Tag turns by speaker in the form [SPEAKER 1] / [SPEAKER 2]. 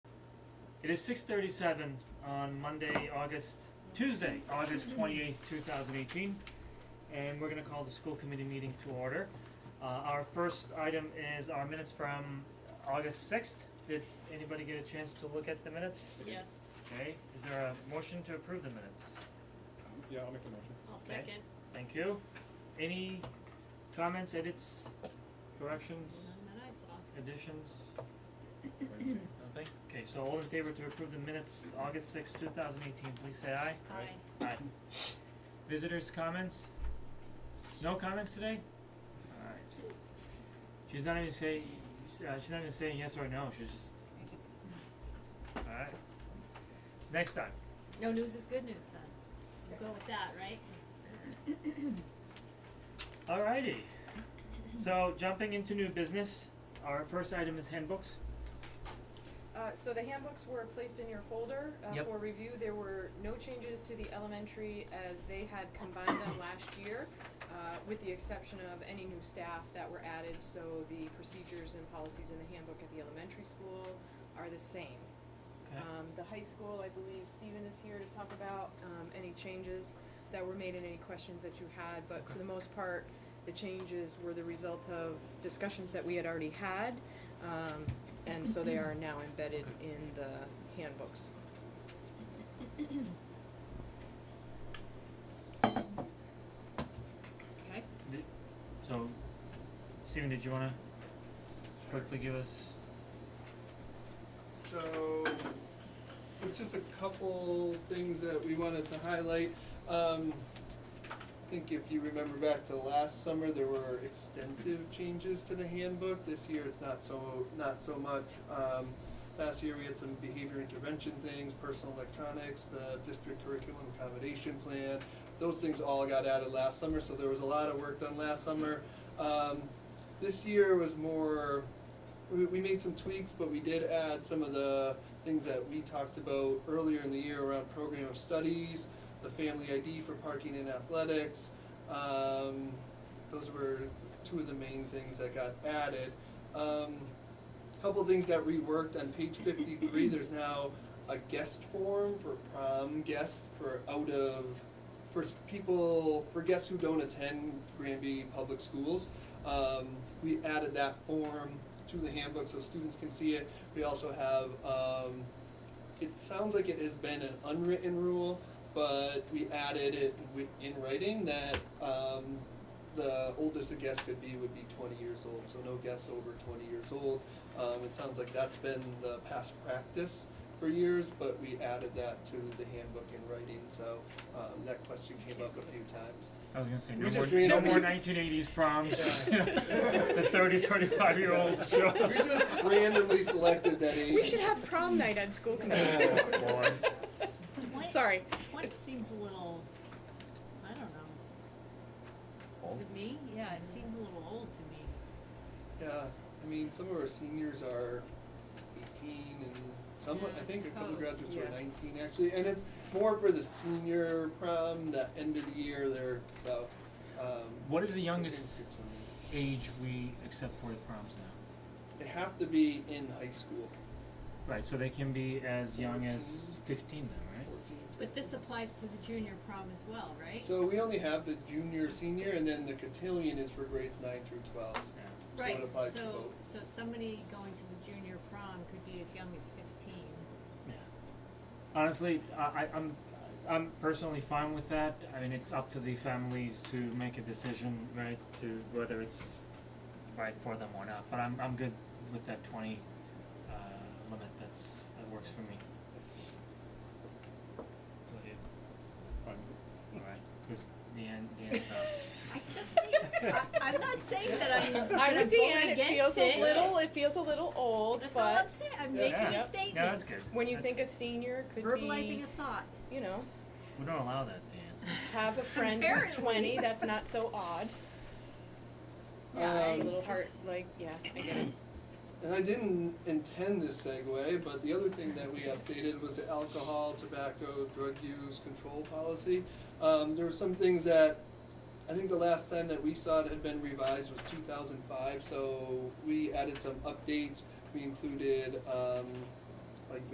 [SPEAKER 1] It is six thirty-seven on Monday, August, Tuesday, August twenty-eighth, two thousand eighteen. And we're gonna call the school committee meeting to order. Uh, our first item is our minutes from August sixth. Did anybody get a chance to look at the minutes?
[SPEAKER 2] Yes,
[SPEAKER 1] Okay, is there a motion to approve the minutes?
[SPEAKER 3] Yeah, I'll make the motion.
[SPEAKER 2] I'll
[SPEAKER 1] Okay.
[SPEAKER 2] second.
[SPEAKER 1] Thank you. Any comments, edits, corrections,
[SPEAKER 2] None that I saw.
[SPEAKER 1] additions?
[SPEAKER 3] Wait a second.
[SPEAKER 1] Nothing? Okay, so all in favor to approve the minutes, August sixth, two thousand eighteen, please say aye.
[SPEAKER 2] Aye.
[SPEAKER 3] Right.
[SPEAKER 1] Aye. Visitors' comments? No comments today? Alright. She's not even say, uh, she's not even saying yes or no, she's just. Alright. Next time.
[SPEAKER 2] No news is good news then. We'll go with that, right?
[SPEAKER 1] Alrighty. So jumping into new business, our first item is handbooks.
[SPEAKER 4] Uh, so the handbooks were placed in your folder, uh,
[SPEAKER 1] Yep.
[SPEAKER 4] for review, there were no changes to the elementary as they had combined them last year, uh, with the exception of any new staff that were added, so the procedures and policies in the handbook at the elementary school are the same.
[SPEAKER 1] Okay.
[SPEAKER 4] Um, the high school, I believe Stephen is here to talk about, um, any changes that were made and any questions that you had, but for
[SPEAKER 1] Okay.
[SPEAKER 4] the most part, the changes were the result of discussions that we had already had, um, and so they are now embedded in the handbooks.
[SPEAKER 2] Okay.
[SPEAKER 1] Di- So, Stephen, did you wanna quickly give us?
[SPEAKER 5] So, there's just a couple things that we wanted to highlight. Um, I think if you remember back to last summer, there were extensive changes to the handbook. This year, it's not so, not so much. Um, last year, we had some behavior intervention things, personal electronics, the district curriculum accommodation plan. Those things all got added last summer, so there was a lot of work done last summer. Um, this year was more we, we made some tweaks, but we did add some of the things that we talked about earlier in the year around program of studies, the family ID for parking and athletics. Um, those were two of the main things that got added. Um, couple things got reworked on page 53. There's now a guest form for prom guests for out of for s- people for guests who don't attend Granby Public Schools. Um, we added that form to the handbook so students can see it. We also have um, it sounds like it has been an unwritten rule, but we added it wi- in writing that um, the oldest a guest could be would be 20 years old, so no guests over 20 years old. Um, it sounds like that's been the past practice for years, but we added that to the handbook in writing, so um, that question came up a few times.
[SPEAKER 1] I was gonna say,
[SPEAKER 5] We
[SPEAKER 1] no more,
[SPEAKER 5] just ran
[SPEAKER 1] no
[SPEAKER 5] over-
[SPEAKER 1] more nineteen eighties proms, you know, the thirty, thirty-five year olds show.
[SPEAKER 5] We just randomly selected that age.
[SPEAKER 4] We should have prom night at school committee.
[SPEAKER 5] Oh, boy.
[SPEAKER 2] Twenty,
[SPEAKER 4] Sorry.
[SPEAKER 2] twenty seems a little, I don't know. Is it me? Yeah, it seems a little old to me.
[SPEAKER 5] Yeah, I mean, some of our seniors are eighteen and some,
[SPEAKER 2] Yeah,
[SPEAKER 5] I
[SPEAKER 2] I
[SPEAKER 5] think a couple
[SPEAKER 2] suppose,
[SPEAKER 5] graduates
[SPEAKER 4] yeah.
[SPEAKER 5] are nineteen actually, and it's more for the senior prom, that end of the year there, so, um.
[SPEAKER 1] What is the
[SPEAKER 5] I think
[SPEAKER 1] youngest
[SPEAKER 5] it's-
[SPEAKER 1] age we accept for the proms now?
[SPEAKER 5] They have to be in high school,
[SPEAKER 1] Right, so they can be as young as fifteen then, right?
[SPEAKER 5] fourteen.
[SPEAKER 2] But this applies to the junior prom as well, right?
[SPEAKER 5] So we only have the junior, senior, and then the cotillion is for grades nine through twelve.
[SPEAKER 1] Yeah.
[SPEAKER 5] so it
[SPEAKER 2] Right,
[SPEAKER 5] applies to
[SPEAKER 2] so,
[SPEAKER 5] both.
[SPEAKER 2] so somebody going to the junior prom could be as young as fifteen.
[SPEAKER 1] Yeah. Honestly, I, I, I'm, I'm personally fine with that. I mean, it's up to the families to make a decision, right, to whether it's right for them or not. But I'm, I'm good with that twenty, uh, limit. That's, that works for me.
[SPEAKER 3] Fine.
[SPEAKER 1] Alright, cause Deanne, Deanne's not.
[SPEAKER 2] I just mean, I, I'm not saying that I'm, that
[SPEAKER 4] I'm
[SPEAKER 2] I'm
[SPEAKER 4] with
[SPEAKER 2] voting
[SPEAKER 4] Deanne, it
[SPEAKER 2] against it.
[SPEAKER 4] feels a little, it feels a little old,
[SPEAKER 2] That's all I'm
[SPEAKER 4] but
[SPEAKER 2] saying, I'm
[SPEAKER 5] Yeah.
[SPEAKER 2] making
[SPEAKER 1] Yeah.
[SPEAKER 2] a
[SPEAKER 1] Yeah, that's
[SPEAKER 2] statement,
[SPEAKER 1] good.
[SPEAKER 4] when you
[SPEAKER 1] That's-
[SPEAKER 4] think a senior could
[SPEAKER 2] verbalizing
[SPEAKER 4] be,
[SPEAKER 2] a thought.
[SPEAKER 4] you know,
[SPEAKER 1] We don't allow that, Deanne.
[SPEAKER 4] have a friend who's
[SPEAKER 2] Apparently.
[SPEAKER 4] twenty, that's not so odd.
[SPEAKER 2] Yeah,
[SPEAKER 4] It's
[SPEAKER 5] Um,
[SPEAKER 4] a little heart, like, yeah, I get it.
[SPEAKER 5] And I didn't intend this segue, but the other thing that we updated was the alcohol, tobacco, drug use control policy. Um, there were some things that, I think the last time that we saw it had been revised was two thousand five, so we added some updates. We included, um,